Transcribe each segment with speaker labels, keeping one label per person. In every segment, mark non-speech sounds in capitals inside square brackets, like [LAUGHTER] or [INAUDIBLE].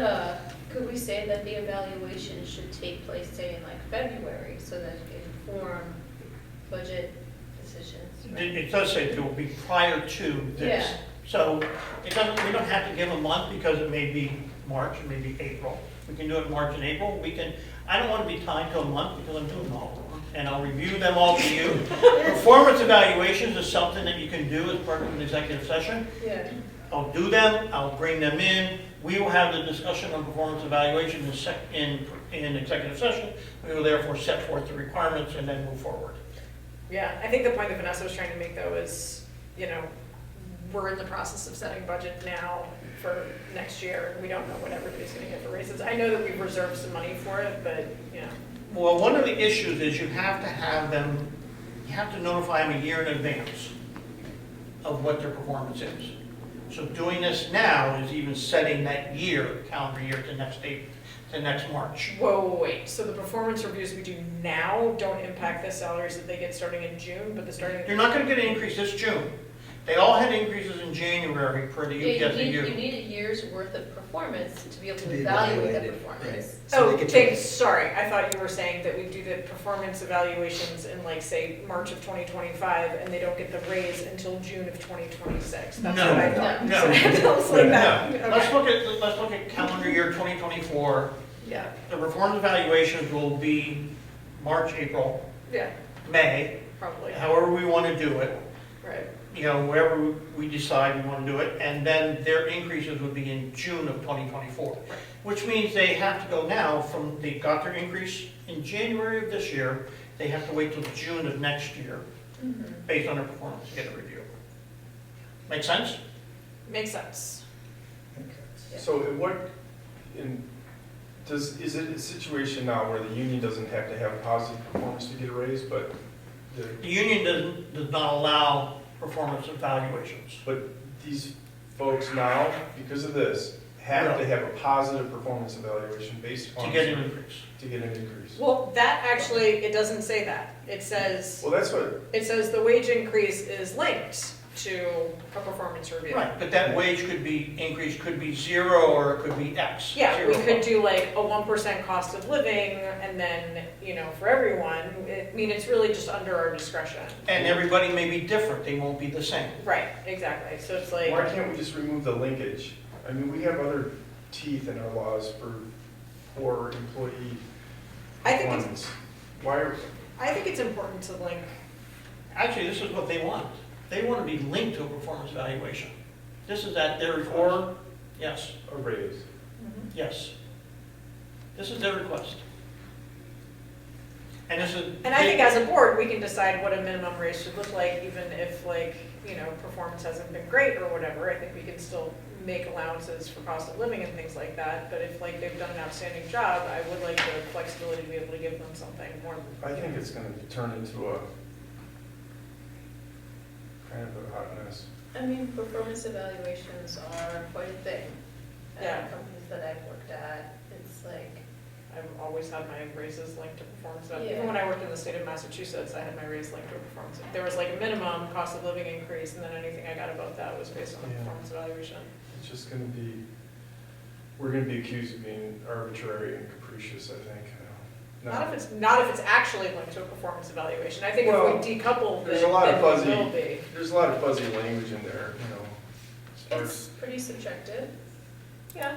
Speaker 1: Uh, Could we say that the evaluation should take place, say, in like February, so that it can inform budget decisions? right?
Speaker 2: It it does say it will be prior to this.
Speaker 1: Yeah.
Speaker 2: So it doesn't, we don't have to give a month because it may be March, it may be April. We can do it March and April. We can, I don't want to be tied to a month because I'm doing them all. And I'll review them all for you. Performance evaluations is something that you can do as part of an executive session.
Speaker 1: Yeah,
Speaker 2: I'll do them, I'll bring them in. We will have the discussion on performance evaluation in sec, in, in executive session. We will therefore set forth the requirements and then move forward.
Speaker 3: Yeah, I think the point that Vanessa was trying to make though is, you know, we're in the process of setting budget now for next year. We don't know what everybody's gonna get for raises. I know that we've reserved some money for it, but, you know,
Speaker 2: Well, one of the issues is you have to have them, you have to notify them a year in advance of what their performance is. So doing this now is even setting that year, calendar year, to next date, to next March.
Speaker 3: whoa, whoa, wait. So the performance reviews we do now don't impact the salaries that they get starting in June, but the starting.
Speaker 2: You're not gonna get an increase this June. They all had increases in January per the
Speaker 1: Yeah, you need, you [LAUGHS]
Speaker 2: UPSU.
Speaker 1: need a year's worth of performance to be able
Speaker 4: To
Speaker 1: to
Speaker 4: be
Speaker 1: evaluate that
Speaker 4: evaluated,
Speaker 1: performance.
Speaker 4: right. So
Speaker 3: Oh,
Speaker 4: they could
Speaker 3: thanks,
Speaker 4: take-
Speaker 3: sorry, I thought you were saying that we do the performance evaluations in like, say, March of twenty twenty-five, and they don't get the raise until June of twenty twenty-six. That's
Speaker 2: No,
Speaker 3: what [LAUGHS] I thought.
Speaker 2: no,
Speaker 3: It was like
Speaker 4: no,
Speaker 3: that.
Speaker 2: No, let's
Speaker 3: Okay.
Speaker 2: look at, let's look at calendar year twenty twenty-four.
Speaker 3: Yeah,
Speaker 2: The performance evaluations will be March, April,
Speaker 3: yeah,
Speaker 2: May,
Speaker 3: probably,
Speaker 2: however we wanna do it.
Speaker 3: right.
Speaker 2: you know, wherever we decide we want to do it, and then their increases would be in June of 2024. Which means they have to go now from, they got their increase in January of this year, they have to wait till June of next year, based on their performance, to get a review. Make sense?
Speaker 3: Makes sense.
Speaker 5: So in what, in, does, is it a situation now where the union doesn't have to have positive performance to get a raise, but the,
Speaker 2: The union doesn't, does not allow performance evaluations.
Speaker 5: but these folks now, because of this, have to have a positive performance evaluation based on.
Speaker 2: To get an increase.
Speaker 5: To get an increase.
Speaker 3: Well, that actually, it doesn't say that. It says,
Speaker 5: Well, that's what,
Speaker 3: it says the wage increase is linked to a performance review.
Speaker 2: Right, but that wage could be, increase could be zero, or it could be X.
Speaker 3: Yeah, we
Speaker 2: zero.
Speaker 3: could do like a one percent cost of living and then, you know, for everyone, I mean, it's really just under our discretion.
Speaker 2: And everybody may be different, they won't be the same.
Speaker 3: Right, exactly, so it's
Speaker 5: why
Speaker 3: like,
Speaker 5: can't we just remove the linkage? I mean, we have other teeth in our laws for, for employee
Speaker 3: I think it's,
Speaker 5: ones. Why are,
Speaker 3: I think it's important to link,
Speaker 2: Actually, this is what they want. They want to be linked to a performance evaluation. This is at their request.
Speaker 5: or
Speaker 2: Yes,
Speaker 5: a raise?
Speaker 2: yes. This is their request. And this is.
Speaker 3: and I think as a board, we can decide what a minimum raise should look like, even if like, you know, performance hasn't been great or whatever, I think we can still make allowances for cost of living and things like that, but if like they've done an outstanding job, I would like the flexibility to be able to give them something more
Speaker 5: I think it's gonna turn into a kind of a hot mess.
Speaker 1: I mean, performance evaluations are quite a thing. at
Speaker 3: Yeah.
Speaker 1: Companies that I've worked at, it's like,
Speaker 3: I've always had my raises linked to performance. eval-
Speaker 1: Yeah.
Speaker 3: Even when I worked in the state of Massachusetts, I had my raise linked to a performance. There was like a minimum cost of living increase, and then anything I got above that was based on the
Speaker 5: Yeah.
Speaker 3: performance evaluation.
Speaker 5: It's just gonna be, we're gonna be accused of being arbitrary and capricious, I think. No.
Speaker 3: Not if it's, not if it's actually linked to a performance evaluation. I think if
Speaker 5: Well,
Speaker 3: we decouple the,
Speaker 5: there's a lot of
Speaker 3: then we
Speaker 5: fuzzy-
Speaker 3: will be.
Speaker 5: There's a lot of fuzzy language in there, you know. as far
Speaker 1: it's
Speaker 5: as-
Speaker 1: pretty subjective.
Speaker 3: Yeah.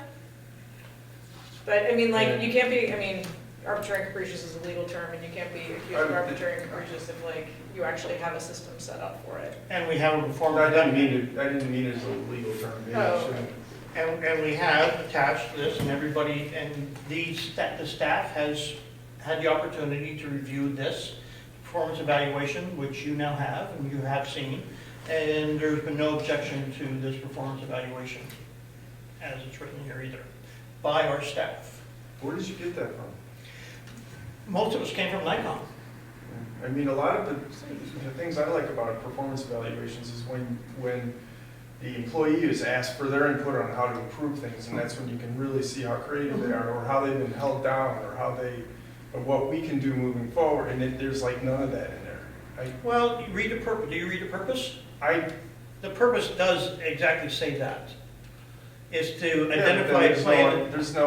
Speaker 3: But I mean,
Speaker 5: Yeah.
Speaker 3: like, you can't be, I mean, arbitrary and capricious is a legal term, and you can't be accused of
Speaker 5: I'm-
Speaker 3: arbitrary and capricious if like you actually have a system set up for it.
Speaker 2: And we have a
Speaker 5: Well,
Speaker 2: performance.
Speaker 5: I didn't mean it, I didn't mean it as a legal term, maybe I
Speaker 3: Oh.
Speaker 5: shouldn't.
Speaker 2: And, and we have attached this, and everybody, and these, that the staff has had the opportunity to review this performance evaluation, which you now have, and you have seen, and there's been no objection to this performance evaluation as it's written here either, by our staff.
Speaker 5: Where did you get that from?
Speaker 2: Most of us came from Nikon.
Speaker 5: I mean, a lot of the, the things I like about performance evaluations is when, when the employee is asked for their input on how to improve things, and that's when you can really see how creative they are, or how they've been held down, or how they, or what we can do moving forward, and it, there's like none of that in there.
Speaker 2: Well, you read the purpose, do you read the purpose?
Speaker 5: I, I,
Speaker 2: The purpose does exactly say that. Is to
Speaker 5: yeah, but then
Speaker 2: identify a
Speaker 5: there's no-
Speaker 2: plan.
Speaker 5: there's no